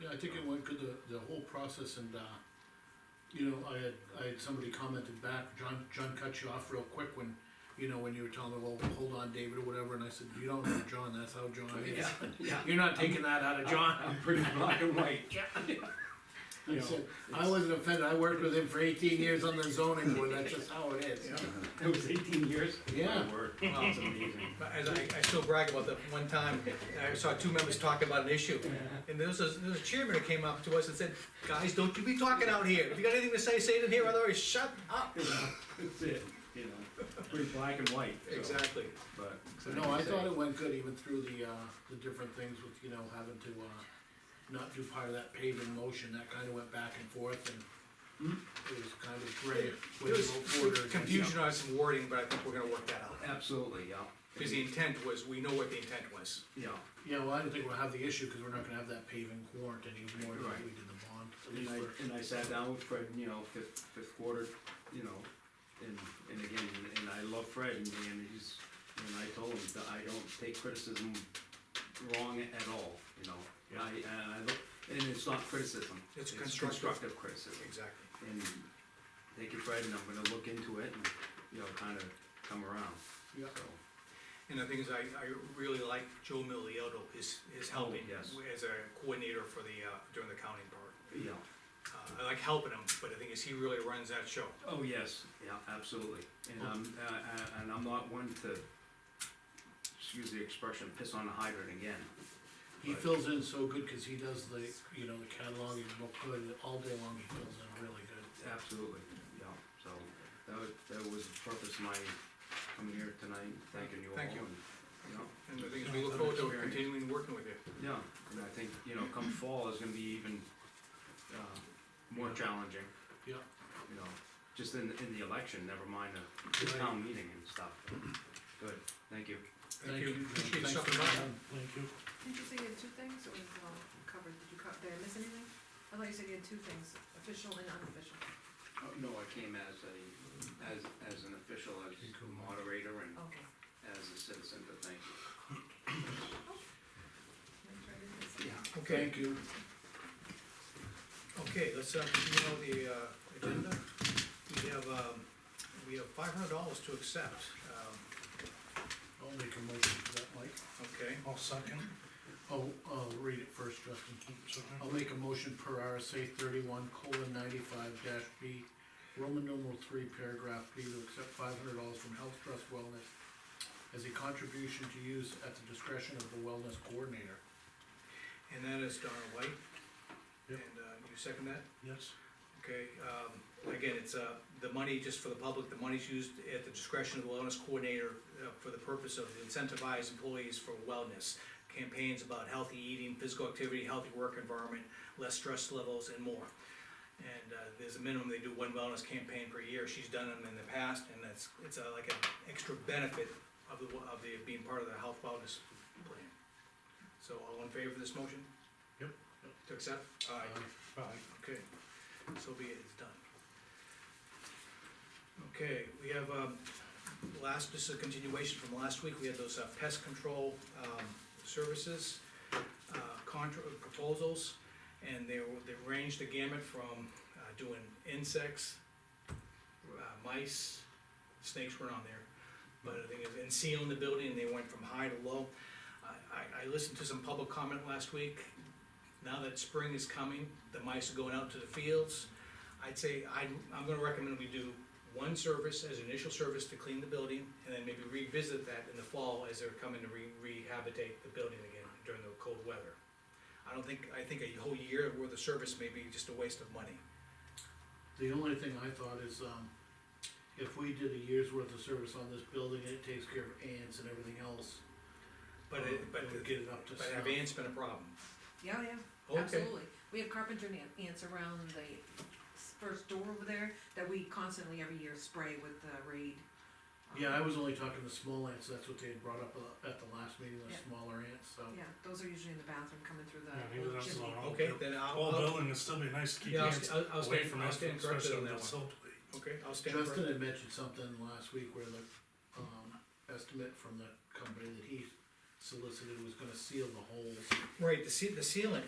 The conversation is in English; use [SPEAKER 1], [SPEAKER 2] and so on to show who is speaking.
[SPEAKER 1] Yeah, I think it went good, the, the whole process and, uh, you know, I had, I had somebody commented back, John, John cut you off real quick when, you know, when you were telling him, well, hold on, David, or whatever, and I said, you don't know John, that's how John is.
[SPEAKER 2] Yeah, yeah.
[SPEAKER 1] You're not taking that out of John.
[SPEAKER 2] I'm pretty black and white.
[SPEAKER 1] I said, I wasn't offended, I worked with him for eighteen years on the zoning board, that's just how it is.
[SPEAKER 2] It was eighteen years.
[SPEAKER 1] Yeah.
[SPEAKER 2] My word. Wow, it's amazing.
[SPEAKER 3] But As I, I still brag about that one time, I saw two members talking about an issue, and there was, a- there was a chairman who came up to us and said, guys, don't you be talking out here, if you got anything to say, say it in here, otherwise shut up.
[SPEAKER 2] You know, That's it, you know, pretty black and white. so,
[SPEAKER 3] Exactly,
[SPEAKER 2] But.
[SPEAKER 1] But No, I thought it went good even through the, uh, the different things with, you know, having to, uh, not do part of that paving motion, that kinda went back and forth and it was kind of gray,
[SPEAKER 3] there
[SPEAKER 1] when you
[SPEAKER 3] was
[SPEAKER 1] vote for it or against.
[SPEAKER 3] confusion on some wording, but I think we're gonna work that out,
[SPEAKER 2] Absolutely, yeah.
[SPEAKER 3] because the intent was, we know what the intent was.
[SPEAKER 2] Yeah,
[SPEAKER 1] Yeah, well, I don't think we'll have the issue, cause we're not gonna have that paving warrant anymore, than
[SPEAKER 2] Right.
[SPEAKER 1] we did the bond, at
[SPEAKER 2] and
[SPEAKER 1] least for-
[SPEAKER 2] I, and I sat down with Fred, you know, fifth, fifth quarter, you know, and, and again, and I love Fred, and, and he's, and I told him that I don't take criticism wrong at all, you know? I, and I look, and it's not criticism.
[SPEAKER 3] It's constructive.
[SPEAKER 2] Constructive criticism.
[SPEAKER 3] Exactly.
[SPEAKER 2] And thank you, Fred, and I'm gonna look into it and, you know, kinda come around,
[SPEAKER 1] Yeah.
[SPEAKER 2] so.
[SPEAKER 3] And the thing is, I, I really like Joe Milliotto, his, his helping,
[SPEAKER 2] yes.
[SPEAKER 3] as a coordinator for the, uh, during the counting part.
[SPEAKER 2] Yeah.
[SPEAKER 3] Uh, I like helping him, but the thing is, he really runs that show.
[SPEAKER 2] Oh, yes. Yeah, absolutely. And I'm, uh, uh, and I'm not one to, excuse the expression, piss on a hydrant again.
[SPEAKER 1] He
[SPEAKER 2] Right.
[SPEAKER 1] fills in so good, cause he does the, you know, the cataloging, look good, all day long, he fills in really good.
[SPEAKER 2] Absolutely, yeah. So that was, that was the purpose of my coming here tonight, thanking you all.
[SPEAKER 3] Thank you.
[SPEAKER 2] and, Yeah.
[SPEAKER 3] And the thing is, we look forward to continuing working with you.
[SPEAKER 2] Yeah, and I think, you know, come fall is gonna be even, uh, more challenging.
[SPEAKER 1] Yeah.
[SPEAKER 2] You know, just in, in the election, never mind the the town meeting and stuff. Good, thank you.
[SPEAKER 3] Thank you,
[SPEAKER 1] John.
[SPEAKER 3] appreciate you
[SPEAKER 1] Thanks
[SPEAKER 3] stopping
[SPEAKER 1] for
[SPEAKER 3] by.
[SPEAKER 1] coming. Thank you.
[SPEAKER 4] Did you say you had two things, or was it all covered, did you cut, did I miss anything? I thought you said you had two things, official and unofficial,
[SPEAKER 2] Oh, No, I came as a, as, as an official, as moderator and
[SPEAKER 4] okay.
[SPEAKER 2] as a citizen, but thank you.
[SPEAKER 4] Make sure I didn't miss anything.
[SPEAKER 3] Okay,
[SPEAKER 1] Thank you.
[SPEAKER 3] okay, let's, uh, continue on the, uh, agenda. We have, um, we have five hundred dollars to accept, um,
[SPEAKER 1] I'll make a motion for that, Mike.
[SPEAKER 3] okay.
[SPEAKER 5] I'll second,
[SPEAKER 1] Oh, I'll read it first, Justin.
[SPEAKER 5] second.
[SPEAKER 1] I'll make a motion per RSA thirty-one colon ninety-five dash B, Roman numeral three, paragraph B, to accept five hundred dollars from Health Trust Wellness as a contribution to use at the discretion of the wellness coordinator.
[SPEAKER 3] And that is Donna White. And,
[SPEAKER 5] Yep.
[SPEAKER 3] uh, you second that?
[SPEAKER 5] Yes,
[SPEAKER 3] Okay, um, again, it's, uh, the money, just for the public, the money's used at the discretion of the wellness coordinator uh, for the purpose of incentivize employees for wellness. Campaigns about healthy eating, physical activity, healthy work environment, less stress levels and more. And, uh, there's a minimum, they do one wellness campaign per year, she's done them in the past, and that's, it's uh, like an extra benefit of the, of the, being part of the health wellness plan. So all in favor of this motion?
[SPEAKER 5] Yep.
[SPEAKER 3] To accept? Aye.
[SPEAKER 5] aye.
[SPEAKER 3] Okay, so be it, it's done. Okay, we have, um, last, this is a continuation from last week, we had those uh, pest control, um, services, uh, contra, proposals, and they were, they ranged the gamut from, uh, doing insects, uh, mice, snakes weren't on there, but I think, it- and sealing the building, and they went from high to low. I, I, I listened to some public comment last week, now that spring is coming, the mice are going out to the fields. I'd say, I'm, I'm gonna recommend we do one service as an initial service to clean the building, and then maybe revisit that in the fall as they're coming to re- rehabilitate the building again during the cold weather. I don't think, I think a whole year worth of service may be just a waste of money.
[SPEAKER 1] The only thing I thought is, um, if we did a year's worth of service on this building, and it takes care of ants and everything else.
[SPEAKER 3] But
[SPEAKER 1] um,
[SPEAKER 3] it, but,
[SPEAKER 1] would get it up to
[SPEAKER 3] but have
[SPEAKER 1] snuff.
[SPEAKER 3] ants been a problem?
[SPEAKER 4] Yeah, yeah,
[SPEAKER 3] Okay,
[SPEAKER 4] absolutely, we have carpenter nan- ants around the s- first door over there, that we constantly every year spray with the raid. Um,
[SPEAKER 1] Yeah, I was only talking to small ants, that's what they had brought up uh, at the last meeting, the
[SPEAKER 4] Yeah.
[SPEAKER 1] smaller ants, so.
[SPEAKER 4] Yeah, those are usually in the bathroom coming through
[SPEAKER 5] Yeah,
[SPEAKER 4] the
[SPEAKER 5] maybe
[SPEAKER 4] old
[SPEAKER 5] that's
[SPEAKER 4] chimney.
[SPEAKER 5] not all.
[SPEAKER 3] okay, then I'll,
[SPEAKER 5] Whole
[SPEAKER 3] I'll,
[SPEAKER 5] building, it'd still be nice to keep
[SPEAKER 3] yeah, I'll,
[SPEAKER 5] ants
[SPEAKER 3] st- I'll, I'll
[SPEAKER 5] away
[SPEAKER 3] stand,
[SPEAKER 5] from
[SPEAKER 3] I'll
[SPEAKER 5] us,
[SPEAKER 3] stand corrected
[SPEAKER 5] especially
[SPEAKER 3] on
[SPEAKER 5] with
[SPEAKER 3] that one.
[SPEAKER 5] that siltweed.
[SPEAKER 3] Okay, I'll stand corrected.
[SPEAKER 1] Justin had mentioned something last week where the, um, estimate from the company that he solicited was gonna seal the holes.
[SPEAKER 3] Right, the ce- the ceiling,